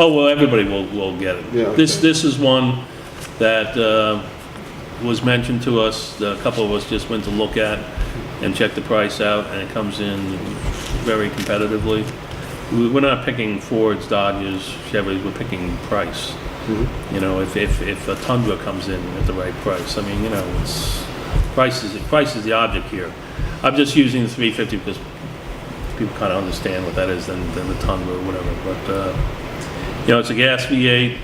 Oh, well, everybody will, will get it. Yeah. This, this is one that uh, was mentioned to us, a couple of us just went to look at and check the price out, and it comes in very competitively. We- We're not picking Fords, Dodges, Chevys, we're picking price. You know, if, if, if a Tundra comes in at the right price, I mean, you know, it's, price is, price is the object here. I'm just using the 350 because people kind of understand what that is than, than the Tundra or whatever, but, uh, you know, it's a gas V8,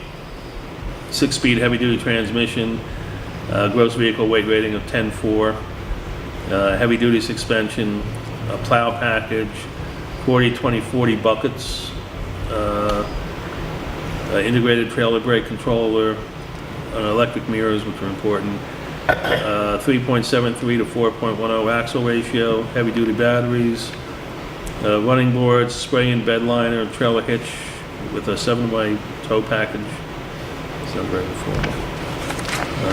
six-speed heavy-duty transmission, uh, gross vehicle weight rating of 10.4, uh, heavy-duty suspension, a plow package, 40, 20, 40 buckets, uh, uh, integrated trailer brake controller, uh, electric mirrors, which are important, uh, 3.73 to 4.10 axle ratio, heavy-duty batteries, uh, running boards, spray and bed liner, trailer hitch with a seven-way tow package. So very affordable.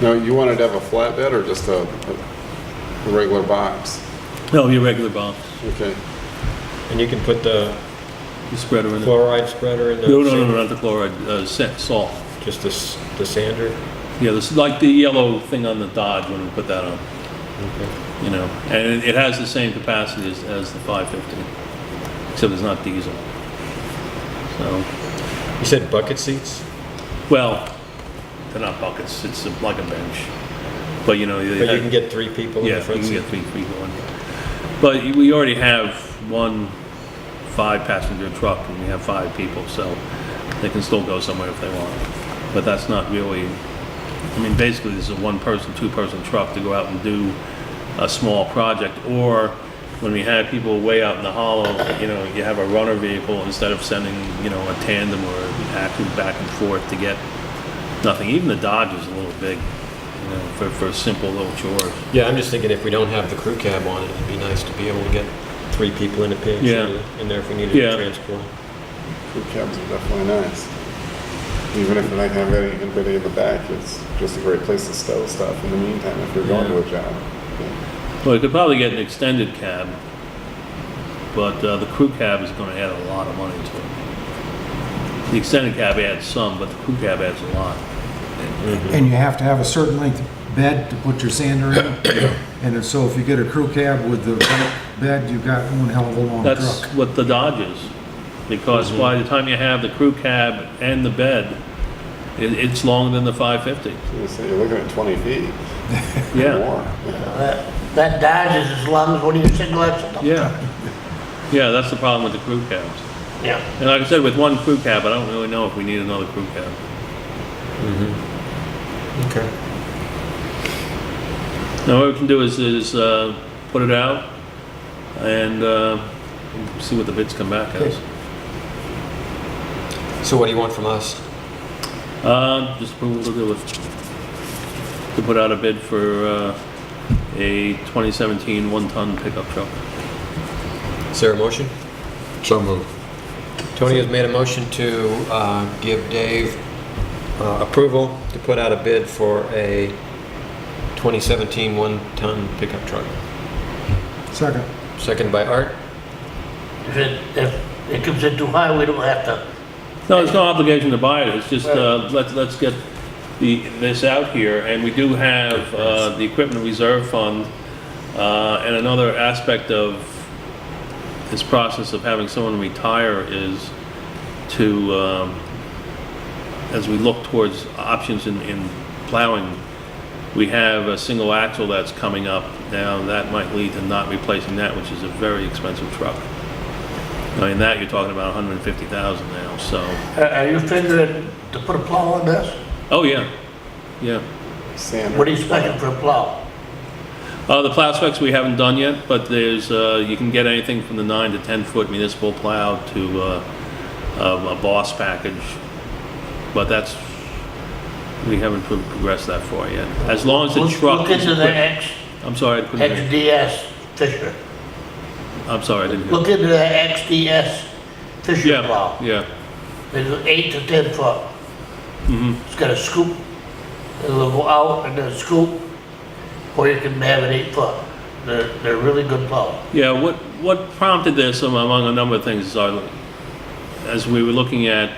Now, you wanted to have a flatbed or just a, a regular box? No, your regular box, Okay. And you can put the the spreader in it. chloride spreader in the. No, no, no, sand- not the chloride, uh, sa- salt. Just the, s- the sander? Yeah, this, like the yellow thing on the Dodge when we put that on, you know, and it- it has the same capacity as, as the 550, except it's not diesel. So, You said bucket seats? well, they're not buckets, it's like a bench, but you know. they But you have- can get three people in Yeah, the you front can seat? get three people in. But you- we already have one five-passenger truck, and we have five people, so they can still go somewhere if they want. But that's not really, I mean, basically, this is a one-person, two-person truck to go out and do a small project, or when we had people way out in the hollow, you know, you have a runner vehicle instead of sending, you know, a tandem or an active back and forth to get nothing. Even the Dodge is a little big, you know, for, for simple little chores. Yeah, I'm just thinking if we don't have the crew cab on it, it'd be nice to be able to get three people in a pinch Yeah. in- in there if we needed Yeah. to transport. Crew cabs are definitely nice. Even if you don't have any, anybody in the back, it's just a great place to stow stuff in the meantime if you're going to a job. Well, you could probably get an extended cab, but uh, the crew cab is going to add a lot of money to it. The extended cab adds some, but the crew cab adds a lot. And you have to have a certain length bed to put your sander in. And if- so if you get a crew cab with the right bed, you've got one hell of a long That's truck. what the Dodge is, because by the time you have the crew cab and the bed, it, it's longer than the 550. You say you're looking at 20 feet or Yeah, more. That that Dodge is as long as one of your cigarettes. yeah, yeah. That's the problem with the crew cabs. Yeah. And like I said, with one crew cab, I don't really know if we need another crew cab. Okay. Now, what we can do is, is, uh, put it out and, uh, see what the bids come back as. So what do you want from us? Uh, just approval to do it. To put out a bid for, uh, a 2017 one-ton pickup truck. Is there a motion? So moved. Tony has made a motion to uh, give Dave uh, approval to put out a bid for a 2017 one-ton pickup truck. Second. Second by Art. If it, if it comes in too high, we don't have to, No, there's no obligation to buy it, it's just, uh, let's, let's get the, this out here, and we do have, uh, the equipment reserve fund, uh, and another aspect of this process of having someone retire is to, um, as we look towards options in, in plowing, we have a single axle that's coming up now, that might lead to not replacing that, which is a very expensive truck. I mean, that, you're talking about hundred and fifty thousand now, so. are Uh, are you figuring to put a plow on this? Oh, yeah, yeah. Sand. What are you expecting for a plow? Uh, the plow specs we haven't done yet, but there's, uh, you can get anything from the nine to 10-foot municipal plow to, uh, um, a boss package. But that's, we haven't pro- progressed that far yet. As long as the Look- truck Look is into the equipped. X, I'm sorry, I couldn't hear. XDS Fisher. I'm sorry, I didn't hear. Look into the XDS Fisher Yeah, plow. yeah. Mm-hmm. It's eight to 10 foot. It's got a scoop. It'll go out and then scoop, or you can have an eight foot. They're, they're really good plow. Yeah, what, what prompted this um, among a number of things is our as we were looking at